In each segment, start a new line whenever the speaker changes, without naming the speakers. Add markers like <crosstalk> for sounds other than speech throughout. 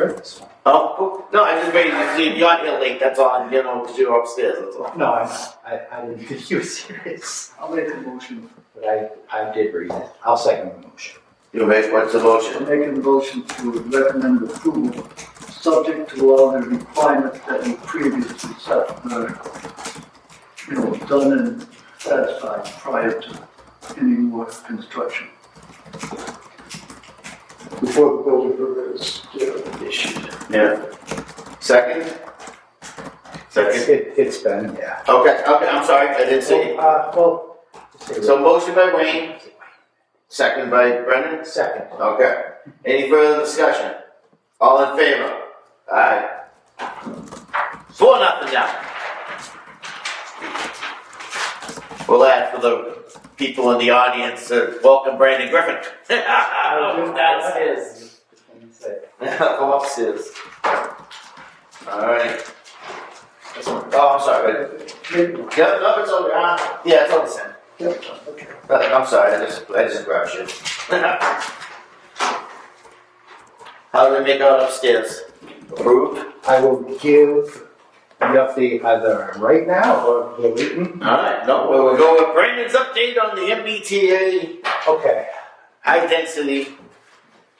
breakfast.
Oh, no, I'm just waiting to see if you're here late, that's all, you know, because you're upstairs, that's all.
No, I'm not. I, I didn't think you were serious.
I'll make a motion.
But I, I did read it. I'll second the motion.
You make, what's the
I'll
motion?
make a motion to recommend approval, subject to all the requirements that we previously set, were, you know, done and satisfied prior to any more construction.
before the building permit is uh, issued.
Yeah. Second?
It's,
Second.
it, it's been, yeah.
Okay, okay, I'm sorry, I didn't see.
Uh, well.
So motion by Wayne, second by Brennan.
Second.
Okay. Any further discussion? All in favor? Aye. Four nothing now. We'll add for the people in the audience, uh, welcome Brandon Griffin. That's <laughs> his. Go upstairs. Alright. Oh, I'm sorry. Yeah, no, it's on, uh, yeah, it's on the sand. Uh, I'm sorry, I just, I just grabbed shit. <laughs> How do they make out upstairs? Approved?
I will give the update either right now or the written.
Alright, no, well, we'll go with Brandon's update on the MBTA
Okay,
high density.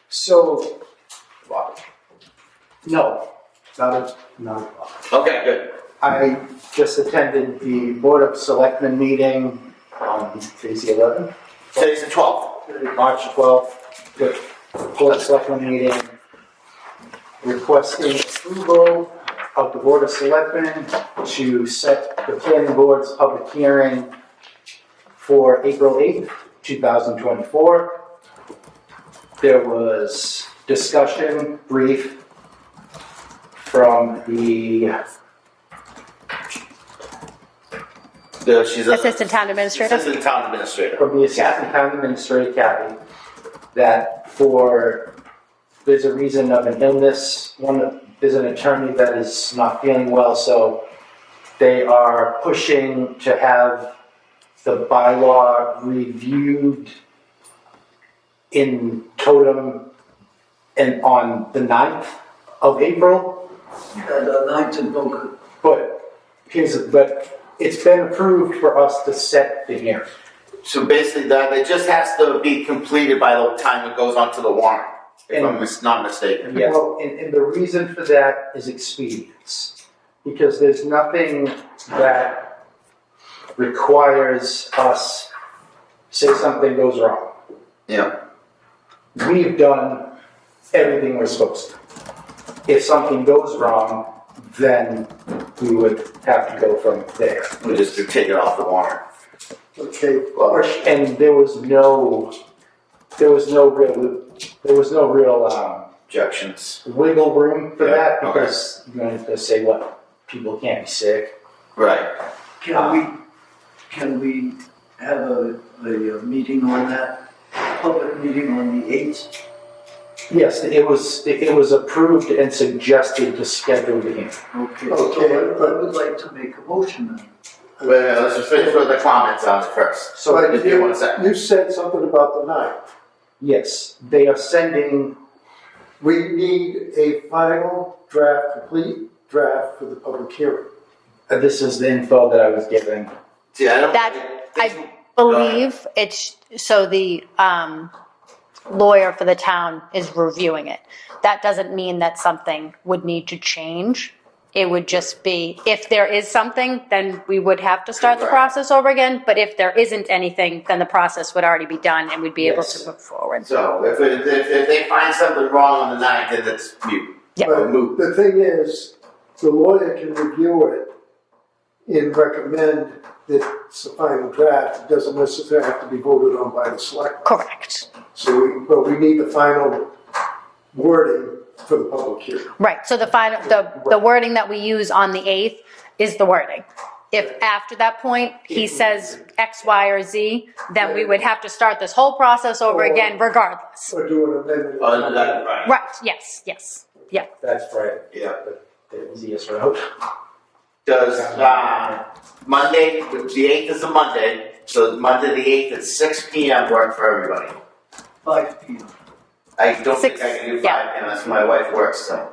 so. No, not a, not a block.
Okay, good.
I just attended the Board of Selectmen meeting on today's the 11th,
Today's the twelfth.
March 12th, the Board of Selectmen meeting requesting approval of the Board of Selectmen to set the planning board's public hearing for April 8th, 2024. There was discussion brief from the
The, she's a.
Assistant Town Administrator.
Assistant town administrator.
from the assistant town administrator, Kathy, that for, there's a reason of an illness, one, there's an attorney that is not feeling well, so they are pushing to have the bylaw reviewed in totem and on the 9th of April.
And the ninth and no,
But here's, but it's been approved for us to set the hearing.
So basically, that it just has to be completed by the time it goes onto the warrant, if I'm mis- not mistaken.
Yes. Well, and, and the reason for that is expedience, because there's nothing that requires us, say something goes wrong.
Yeah.
We've done everything we're supposed to. If something goes wrong, then we would have to go from there.
We just take it off the warrant.
okay,
Or- And there was no, there was no real, there was no real, um,
Objections.
wiggle room for
Yeah,
that
okay.
because you're going to say what people can't be sick.
Right.
can we, can we have a, a uh, meeting on that? Public meeting on the eighth?
Yes, it was it was approved and suggested to schedule the hearing.
Okay,
Okay.
so I I would like to make a motion then.
Wait, wait, let's just finish with the comments on it first.
So
But
if you want a second.
You said something about the ninth.
yes, they are sending
We need a final draft, complete draft for the public hearing.
uh, this is the info that I was given.
See, I don't.
That-
think-
Believe it's, so the um, lawyer for the town is reviewing it. That doesn't mean that something would need to change. It would just be, if there is something, then we would have to start the
Right.
process over again. But if there isn't anything, then the process would already be done and we'd be able
Yes.
to move forward.
So if, it- if, if they find something wrong on the ninth, then it's mute.
Yeah.
Or moot.
The thing is, the lawyer can review it and recommend that it's a final draft. It doesn't necessarily have to be voted on by the select.
Correct.
So, we- but we need the final wording for the public hearing.
Right, so the final, the, the wording that we use on the 8th is the wording. If after that point, he says X, Y, or Z, then we would have to start this whole process over again regardless.
Or do an amendment.
Oh, no, that- right.
Right, yes, yes, yeah.
That's right.
Yeah.
The easiest route.
Does, uh, Monday, the eighth is a Monday, so Monday the eighth at six P M work for everybody.
Five P M.
I don't think
Six,
I can do
yeah.
five unless my wife works, so.